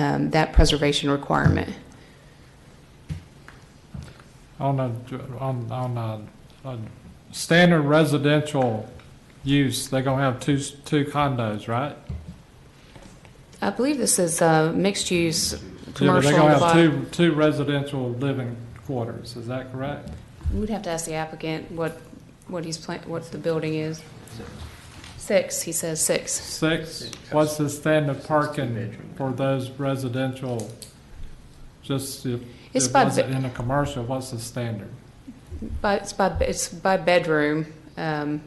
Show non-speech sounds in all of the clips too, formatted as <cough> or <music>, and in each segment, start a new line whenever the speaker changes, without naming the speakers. um, that preservation requirement.
On a, on, on a, a standard residential use, they're gonna have two, two condos, right?
I believe this is uh, mixed-use
Yeah, but
commercial.
They're
on the
gonna have
bottom.
two, two residential living quarters, is that correct?
We'd have to ask the applicant what, what he's plan, what the building is. Six, he says six.
Six, what's the standard parking for those residential? Just if,
It's
if
by,
was
be-
it in a commercial, what's the standard?
by, it's by, it's by bedroom. um,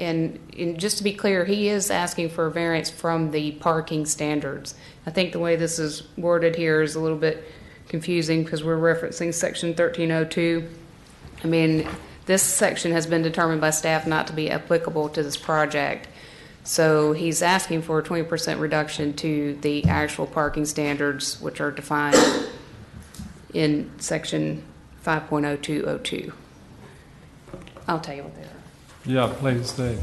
And, and just to be clear, he is asking for a variance from the parking standards. I think the way this is worded here is a little bit confusing because we're referencing section thirteen oh two. I mean, this section has been determined by staff not to be applicable to this project. So he's asking for a twenty percent reduction to the actual parking standards, which are defined in section five point oh two oh two. I'll tell you what they are.
Yeah, please do.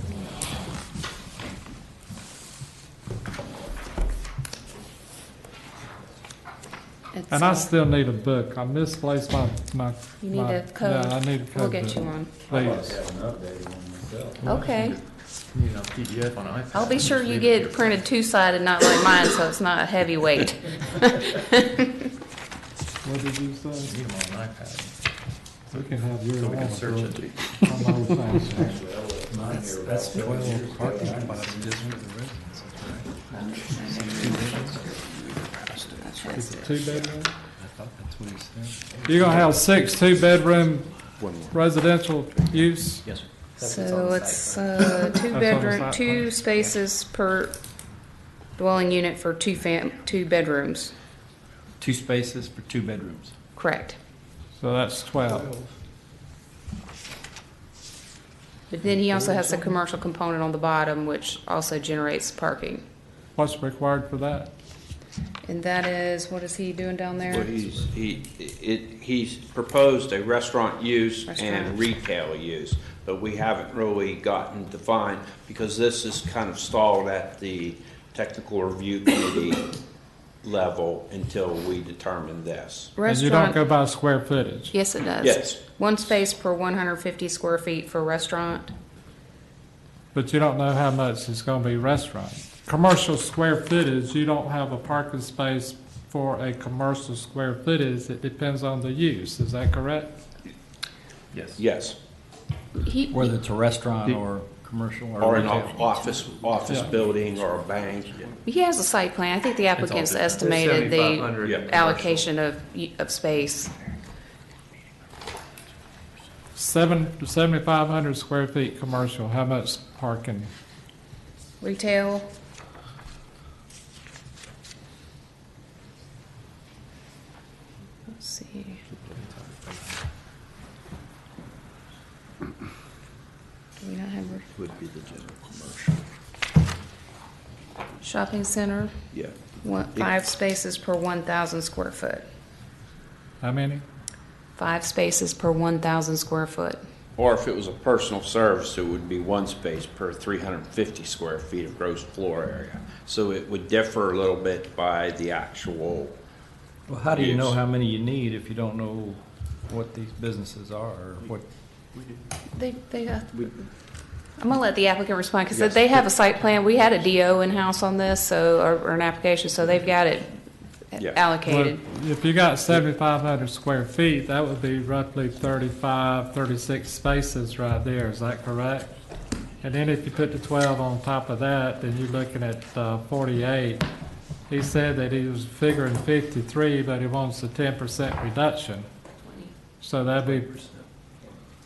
It's,
And I
uh,
still need a book, I misplaced my, my.
You need
my-
a code.
Yeah, I need a code.
We'll get
book.
you one.
I'd
Please.
like to have an updated one myself.
Okay.
You know, PDF on iPhone.
I'll be sure
Just
you
leave
get
it here.
printed two-sided, not like mine, so it's not a heavy
<laughs>
weight.
What did you
You
say?
Need them on an iPad,
We can have
so
your.
we
own
can search
book.
it.
I'm old fashioned. <laughs>
Actually, I left mine here about
That's
seven years
twelve
ago.
parking
I-
spots just for the residents, that's right.
It's a two bedroom?
I thought that's what he said.
You're gonna have six two bedroom residential use?
Yes, sir.
So it's, uh, two
That's on the
bedroom,
site
two
plan.
spaces per dwelling unit for two fam, two bedrooms,
Two spaces for two bedrooms.
correct.
So that's twelve.
But then he also has a commercial component on the bottom, which also generates parking.
What's required for that?
And that is, what is he doing down
Well,
there?
he's, he, it, he's proposed a restaurant use
Restaurant.
and retail use, but we haven't really gotten defined, because this is kind of stalled at the technical review committee level until we determine this.
And you don't
Restaurant,
go by square footage.
yes, it does.
Yes,
One space per one hundred fifty square feet for restaurant.
But you don't know how much is gonna be restaurant. Commercial square footage, you don't have a parking space for a commercial square footage. It depends on the use, is that correct?
yes.
yes,
He,
Whether it's a restaurant or commercial or
or an
retail.
o- office, office
Yeah.
building or a bank,
he has a site plan. I think the applicant's
different.
estimated the
7,500
Yeah.
commercial.
allocation of, of space.
Seven, seventy-five hundred square feet commercial, how much parking?
Retail, let's see. Do we not have re-
would be the general commercial,
shopping center?
yeah.
One, five spaces per one thousand square foot.
How many?
Five spaces per one thousand square foot.
Or if it was a personal service, it would be one space per 350 square feet of gross floor area. So it would differ a little bit by the actual,
Well, how do you know
Yes.
how many you need if you don't know what these businesses are or what?
They, they, uh, I'm gonna let the applicant respond, because they have a site plan, we had a DO in-house on this, so, or, or an application, so they've got it
Yeah.
allocated.
Well, If you got seventy-five hundred square feet, that would be roughly 35, 36 spaces right there, is that correct? And then if you put the twelve on top of that, then you're looking at uh, forty-eight. He said that he was figuring fifty-three, but he wants a ten percent reduction. So that'd be,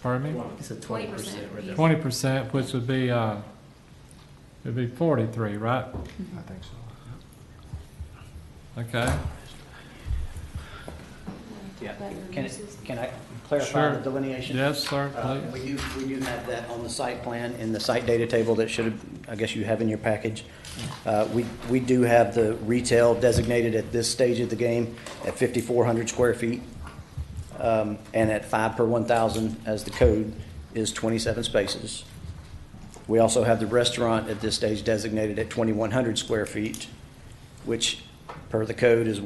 pardon me,
It's a twelve percent reduction.
twenty percent, which would be, uh, it'd be forty-three, right?
I think so.
Okay,
Yeah, can, can I clarify
Sure.
the delineation?
yes, sir,
Uh,
please.
We do, we do have that on the site plan, in the site data table that should, have I guess you have in your package. Uh, We, we do have the retail designated at this stage of the game at 5,400 square feet, um, and at five per 1,000 as the code is 27 spaces. We also have the restaurant at this stage designated at 2,100 square feet, which per the code is